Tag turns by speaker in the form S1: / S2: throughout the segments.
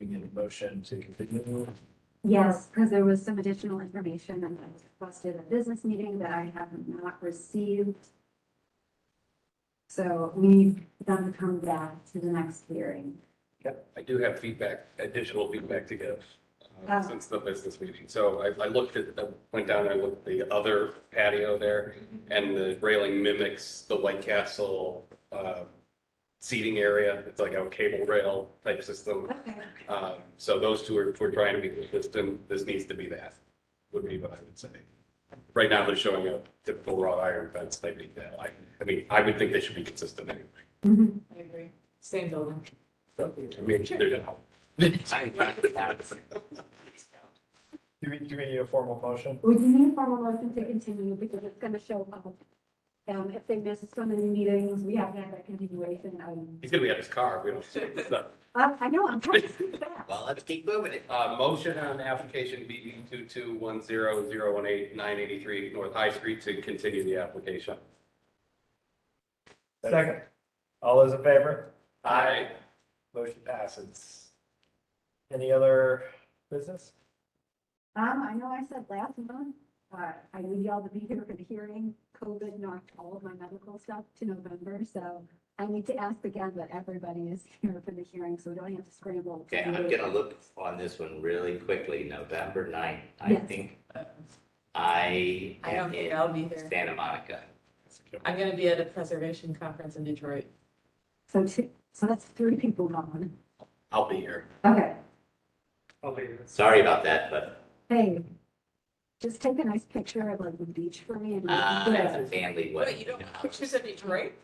S1: we get a motion to continue.
S2: Yes, because there was some additional information that was requested at business meeting that I have not received. So we need them to come back to the next hearing.
S3: I do have feedback, additional feedback to give
S2: Ah.
S3: uh, since the business meeting. So I, I looked at, I went down and I looked at the other patio there and the railing mimics the White Castle uh, seating area. It's like a cable rail type system.
S2: Okay.
S3: Um, So those two are, if we're trying to be consistent, this needs to be that, would be what I would say. Right now, they're showing a typical wrought iron fence type of deal. I, I mean, I would think they should be consistent anyway.
S2: Mhm.
S4: I agree. Same building.
S3: I mean, they're not.
S1: Do we, do we need a formal motion?
S2: We do need a formal motion to continue because it's going to show up. Um, if they miss so many meetings, we have to have that continuation. Um,
S3: He's gonna be at his car, we don't. it's not-
S2: uh, I know, I'm trying to speak back.
S5: Well, let's keep moving it.
S3: Uh, motion on application BB two two one zero zero one eight nine eighty-three North High Street to continue the application.
S1: Second. All those in favor?
S3: Aye.
S1: Motion passes. Any other business?
S2: Um, I know I said last month, uh, I need y'all to be here for the hearing. COVID knocked all of my medical stuff to November, so I need to ask again that everybody is here for the hearing, so we don't have to scramble. to
S5: Okay,
S2: do
S5: I'm
S2: it.
S5: gonna look on this one really quickly, November ninth, I
S2: Yes.
S5: think I
S4: I don't
S5: am
S4: think
S5: in
S4: I'll be there.
S5: Santa Monica.
S4: I'm gonna be at a preservation conference in Detroit.
S2: So two, so that's three people gone.
S3: I'll be here.
S2: Okay,
S1: I'll leave it.
S5: Sorry about that, but
S2: hey, just take a nice picture of like the beach for me. and-
S5: uh, that's a family wedding.
S4: Wait, you don't have pictures of Detroit?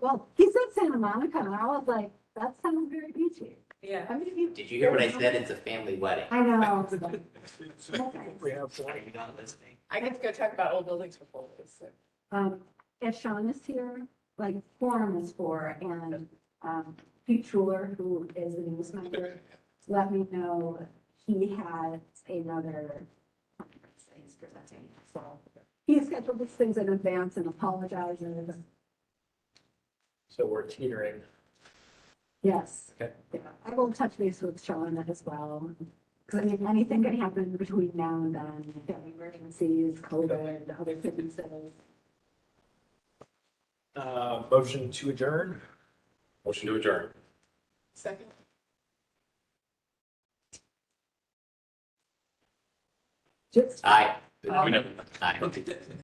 S2: Well, he said Santa Monica, and I was like, that sounds very beachy.
S4: Yeah.
S2: I mean, if you.
S5: Did you hear what I said? It's a family wedding.
S2: I know. it's like- Okay.
S1: We have some.
S5: Are you not listening?
S4: I get to go talk about old buildings for four days. so.
S2: um, if Sean is here, like forum is for, and, um, Pete Schuler, who is the news member, let me know he has another conference that he's presenting, so. He scheduled these things in advance and apologizes,
S1: So we're teetering.
S2: yes.
S1: Okay.
S2: Yeah, I will touch base with Sean as well, because I mean, anything can happen between now and then, family emergencies, COVID, other things, so.
S1: Uh, motion to adjourn?
S3: Motion to adjourn.
S4: Second.
S2: Just
S5: Aye.
S4: Oh.
S5: Aye.